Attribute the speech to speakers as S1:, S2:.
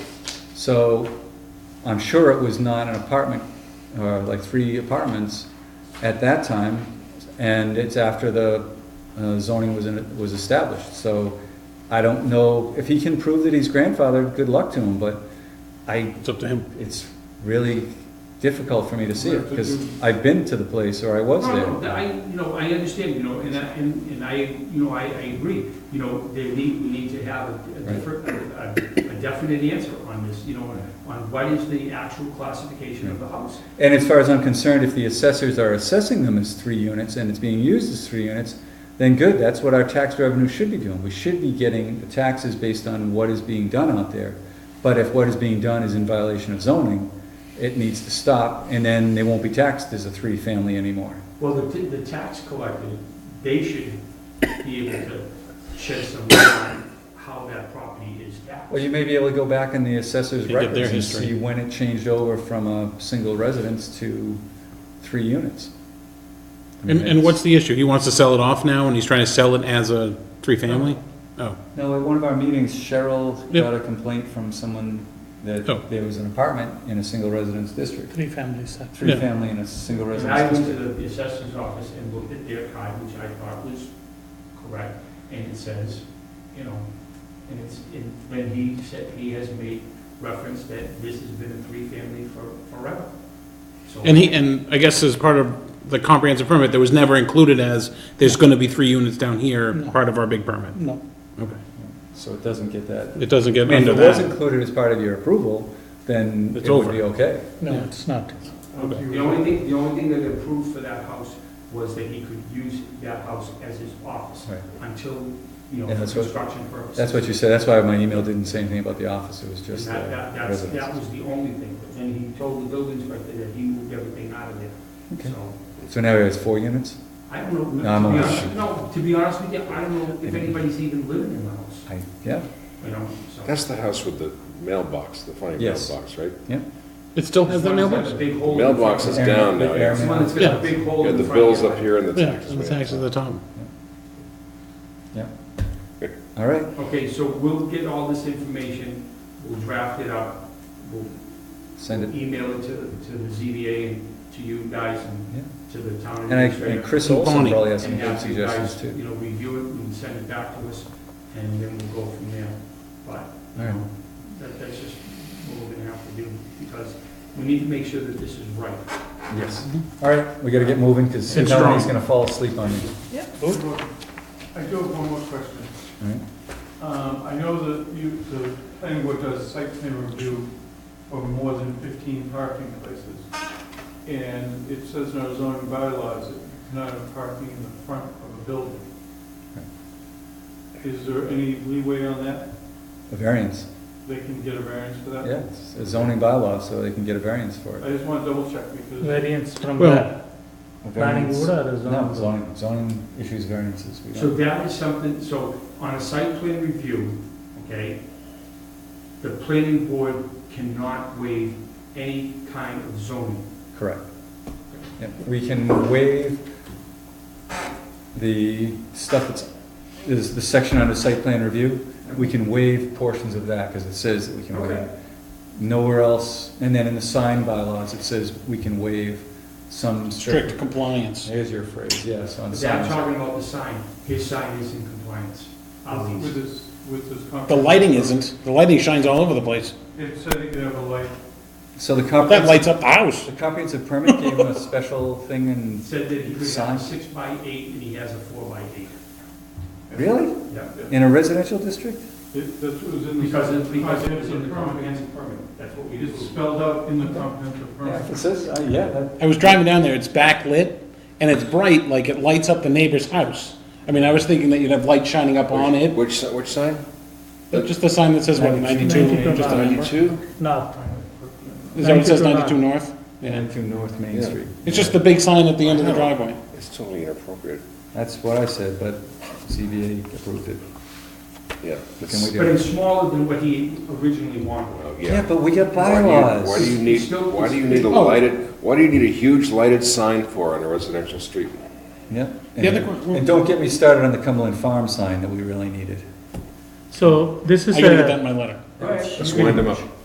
S1: So I'm sure it was not an apartment, or like three apartments at that time, and it's after the uh, zoning was, in- was established. So I don't know, if he can prove that he's grandfathered, good luck to him, but I,
S2: It's up to him.
S1: it's really difficult for me to see it,
S3: Right, but
S1: because
S3: you-
S1: I've been to the place, or I was
S3: No, no,
S1: there.
S3: that I, you know, I understand, you know, and I, and and I, you know, I, I agree. You know, they need, we need to have a- a
S1: Right.
S3: different, a a definite answer on this, you know, on what is the actual classification of the house.
S1: And as far as I'm concerned, if the assessors are assessing them as three units and it's being used as three units, then good, that's what our tax revenue should be doing. We should be getting the taxes based on what is being done out there. But if what is being done is in violation of zoning, it needs to stop, and then they won't be taxed as a three-family anymore.
S3: Well, the, t- the tax collector, they should be able to shed some light on how that property is taxed.
S1: Well, you may be able to go back in the assessor's
S2: Pick up their
S1: records and
S2: history.
S1: see when it changed over from a single residence to three units. I mean,
S2: And, and what's the issue? He wants to sell it off now, and he's trying to sell it as a three-family? Oh,
S1: No, at one of our meetings, Cheryl
S2: Yeah.
S1: got a complaint from someone that
S2: Oh.
S1: there was an apartment in a single residence district,
S4: Three families, sir.
S1: three
S2: Yeah.
S1: family in a single
S3: And I
S1: residence
S3: went to
S1: district.
S3: the assessor's office and looked at their card, which I thought was correct, and it says, you know, and it's, and when he said, he has made reference that this has been a three-family for, forever. So,
S2: Oh. and he, and I guess as part of the comprehensive permit, that was never included as, there's gonna be three units down here,
S4: No.
S2: part of our big permit.
S4: No,
S2: Okay.
S1: So it doesn't get that.
S2: It doesn't
S1: I
S2: get
S1: mean, if
S2: under
S1: it was
S2: that.
S1: included as part of your approval, then
S2: It's
S1: it would
S2: over.
S1: be okay.
S4: no,
S2: Yeah.
S4: it's not.
S2: Okay.
S3: um, the only thing, the only thing that approved for that house was that he could use that house as his office
S1: Right.
S3: until, you know,
S1: And that's what-
S3: construction purposes.
S1: That's what you said, that's why my email didn't say anything about the office, it was
S3: And
S1: just the
S3: that, that, that's, that
S1: residence.
S3: was the only thing, but then he told the building inspector that he moved everything out of
S1: Okay.
S3: there, so.
S1: So now it has four units?
S3: I don't know,
S1: No, I'm
S3: to be
S1: only
S3: honest,
S1: shooting.
S3: no, to be honest with you, I don't know if anybody's even living in the house,
S1: I, yeah,
S3: you know, so.
S5: That's the house with the mailbox, the funny
S1: Yes.
S5: mailbox, right?
S2: It still has that
S3: It's one that's
S2: mailbox?
S3: got a big hole in front.
S5: Mailbox is down now.
S1: Yeah.
S5: You
S3: It's one that's got a big hole
S5: got
S3: in
S5: the
S3: front of
S5: bills
S3: your-
S5: up here and the
S2: Yeah,
S5: taxes.
S2: and the tax at the top.
S1: all right.
S3: Okay, so we'll get all this information, we'll draft it up, we'll
S1: Send it,
S3: email it to, the- to the ZBA and to you guys and
S1: yeah.
S3: to the town
S1: And I, and
S3: administrator.
S1: Chris Olson
S2: Bonnie.
S1: probably has some
S3: And uh,
S1: good
S3: have you
S1: suggestions
S3: guys,
S1: too.
S3: you know, review it and send it back to us, and then we'll go from there. But
S1: All right.
S3: That, that's just what we're gonna have to do, because we need to make sure that this is right.
S1: Yes. All right, we gotta get moving, because
S2: And
S1: nobody's
S2: strong.
S1: gonna fall asleep on me.
S6: I do have one more question.
S1: All right.
S6: Um, I know that you, the planning board does site plan review for more than 15 parking places. And it says in our zoning bylaws that you cannot have parking in the front of a building. Is there any leeway on that?
S1: A variance,
S6: They can get a variance for that?
S1: yeah, it's a zoning bylaw, so they can get a variance for it.
S6: I just want to double check because
S4: Variance from
S2: Well-
S4: the
S1: A
S4: planning
S1: variance-
S4: board or
S1: No,
S4: zoning
S1: zoning,
S4: board?
S1: zoning issues variances, we
S3: So
S1: don't,
S3: that is something, so on a site plan review, okay, the planning board cannot waive any kind of zoning.
S1: correct. Yeah, We can waive the stuff that's, is the section under site plan review, we can waive portions of that, because it says that we can waive.
S3: Okay.
S1: Nowhere else, and then in the sign bylaws, it says we can waive some
S2: Strict
S1: strict.
S2: compliance.
S1: There's your phrase, yes, on
S3: But I'm
S1: signs.
S3: talking about the sign, his sign is in compliance, at
S6: with
S3: least.
S6: this, with this.
S2: The
S6: comprehensive-
S2: lighting isn't. The lighting shines all over the place.
S6: It said you could have a light.
S1: So the
S2: That
S1: comprehensive,
S2: lights up the house.
S1: the comprehensive permit gave them a special thing
S3: It
S1: and,
S3: said that he could
S1: Sign.
S3: have a six by eight and he has a four by eight.
S1: really?
S3: Yeah.
S1: In a residential district?
S6: It- That was in the.
S3: Because it's, because it's in
S6: comprehensive
S3: the
S6: permit.
S3: comprehensive permit, that's what we do.
S6: It's spelled out in the comprehensive
S1: Yeah, if
S6: permit.
S1: it says, uh, yeah, that-
S2: I was driving down there, it's backlit, and it's bright, like it lights up the neighbor's house. I mean, I was thinking that you'd have light shining up on it,
S5: Which, si- which sign?
S2: but Uh, just the sign that says, what, 92,
S4: 92.
S2: just a number? Is
S5: Ninety-two?
S4: No,
S2: that what it says, 92
S4: 92
S2: north? Yeah.
S1: and to North Main
S5: Yeah.
S1: Street.
S2: It's just the big sign at the end of the driveway.
S5: It's totally inappropriate,
S1: That's what I said, but CBA approved it.
S5: yeah.
S1: What can we
S5: it's-
S3: But
S1: do?
S3: it's smaller than what he originally wanted.
S5: oh,
S1: Yeah, but we got
S5: Why do you- Why do
S1: bylaws.
S5: you need,
S3: Still-
S5: why do you need a
S2: Oh.
S5: lighted, why do you need a huge lighted sign for on a residential street?
S1: Yep.
S2: The other que-
S1: And don't get me started on the Cumberland Farm sign that we really needed.
S4: so this
S2: I
S4: is
S2: gotta get that in
S4: a,
S2: my letter.
S5: Let's wind them up.